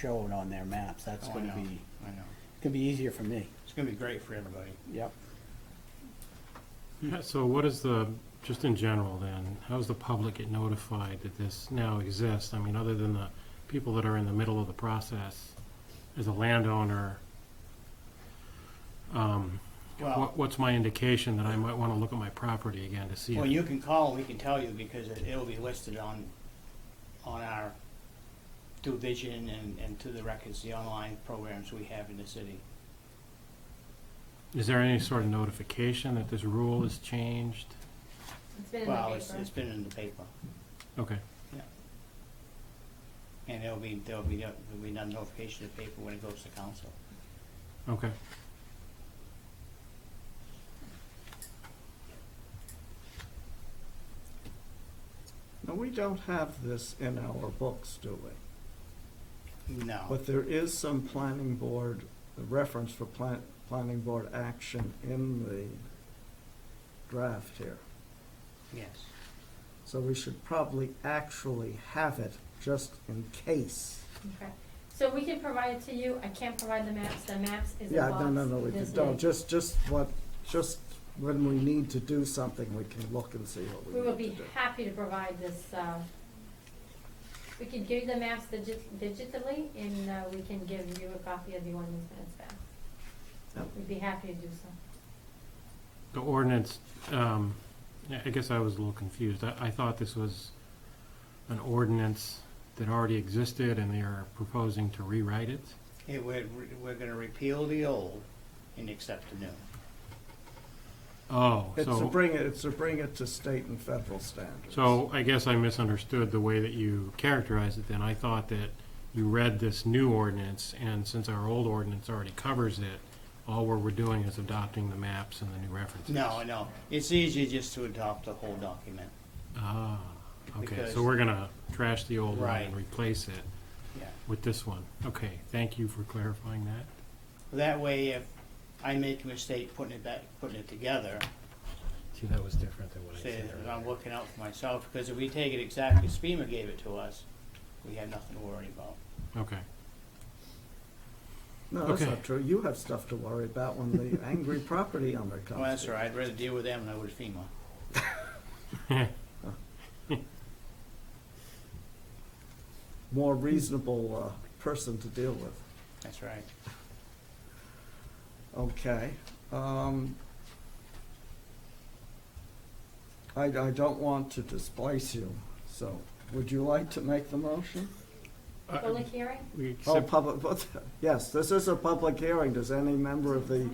showed on their maps, that's Oh, I gonna know, be, I know. gonna be easier for me, It's gonna be great for everybody. yep. Yeah, so what is the, just in general then, how's the public get notified that this now exists? I mean, other than the people that are in the middle of the process, as a landowner, um, Well, what, what's my indication that I might wanna look at my property again to see well, it? you can call, we can tell you, because it- it'll be listed on, on our, through Vision and, and to the records, the online programs we have in the city. Is there any sort of notification that this rule is changed? It's been in the Well, it's, paper. it's been in the paper, Okay, and there'll be, there'll be, no- there'll be no notification of paper when it goes to council. okay. Now, we don't have this in our books, do we? No, But there is some planning board, the reference for plan, planning board action in the draft here. yes, So we should probably actually have it just in case. Okay. So we can provide it to you. I can't provide the maps. The maps is a Yeah, box. no, no, no, we this could, no, big. just, just what, just when we need to do something, we can look and see what We we will need to be do. happy to provide this, uh, we can give you the maps digi- digitally and, uh, we can give you a copy of the ordinance minutes back. Yep. We'd be happy to do so. The ordinance, um, yeah, I guess I was a little confused. I, I thought this was an ordinance that already existed and they are proposing to rewrite it? it, we're, we're gonna repeal the old and accept the new. Oh, It's to so, bring it, it's to bring it to state and federal standards. so I guess I misunderstood the way that you characterized it then. I thought that you read this new ordinance, and since our old ordinance already covers it, all we're, we're doing is adopting the maps and the new references. No, no, it's easier just to adopt the whole document, Ah, okay, Because- so we're gonna trash the old one and Right. replace it yeah. with this one. Okay, thank you for clarifying that. That way, if I make a mistake putting it back, putting it together, See, that was different than what I say said. that I'm earlier. looking out for myself, because if we take it exactly as FEMA gave it to us, we have nothing to worry about. Okay, No, that's okay. not true. You have stuff to worry about when the angry property owner comes. Well, Oh, that's to all you. right, I'd rather deal with them than I would FEMA. More reasonable, uh, person to deal with. That's right. Okay. um, I, I don't want to displace you, so would you like to make the motion? Uh, Public hearing? We Oh, accept, public, but- yes, this is a public hearing. Does any member of the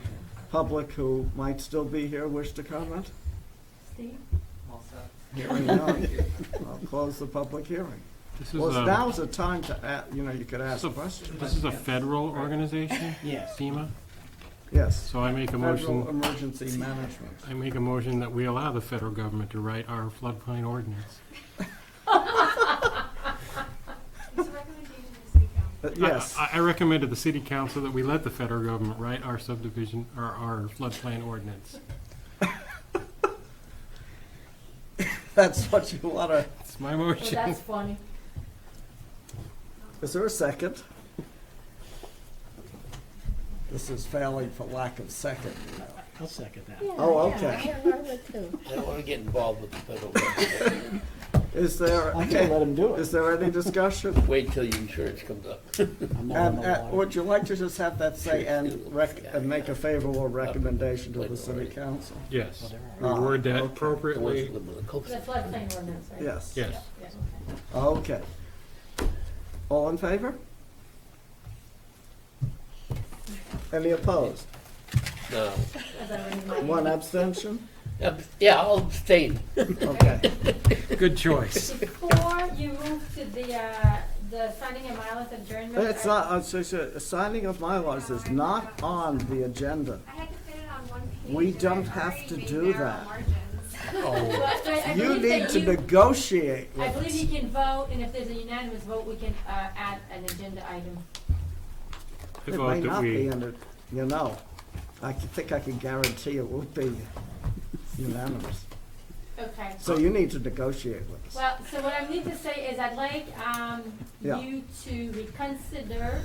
public who might still be here wish to comment? Steve? Hearing none. I'll close the public hearing. this is Well, a, now's the time to, a- you know, you could ask So- questions. this is a federal organization, Yes, FEMA, Yes. so I make a motion. Federal Emergency Management. I make a motion that we allow the federal government to write our floodplain ordinance. It's a recommendation to City Council. Uh, Yes. I, I recommend to the city council that we let the federal government write our subdivision, or our floodplain ordinance. That's what you want to, It's my Well, motion. Oh, that's funny. is there a second? This is failing for lack of second. you know. I'll second that. Oh, okay. I don't want to get involved with the federal government. Is there, I'm gonna let him do it. is there any discussion? Wait till your insurance comes up. I'm not on And, the uh, water. would you like to just have that say and rec, and make a favorable recommendation to the city council? Yes. We Ah, word that okay. The ones appropriately. that live on the coast. The floodplain ordinance, right? Yes. Yes. Yeah, okay. Okay. All in favor? Any opposed? No. As I read my- One abstention? Um, Yeah, I'll abstain. Okay. Good choice. Before you move to the, uh, the signing and mileage adjournment. It's I- not, uh, so, so, signing of MyLars is not on the agenda. I had to fit it on one page. We and I don't have already to made do narrow that. margins. But I- I You believe that need to negotiate I with believe us. you can vote, and if there's a unanimous vote, we can, uh, add an agenda item. I It may vote that not be we, in it, you know. I can- think I can guarantee it will be unanimous. Okay. So you need to negotiate with us. Well, so what I need to say is I'd like, um, Yeah. you to reconsider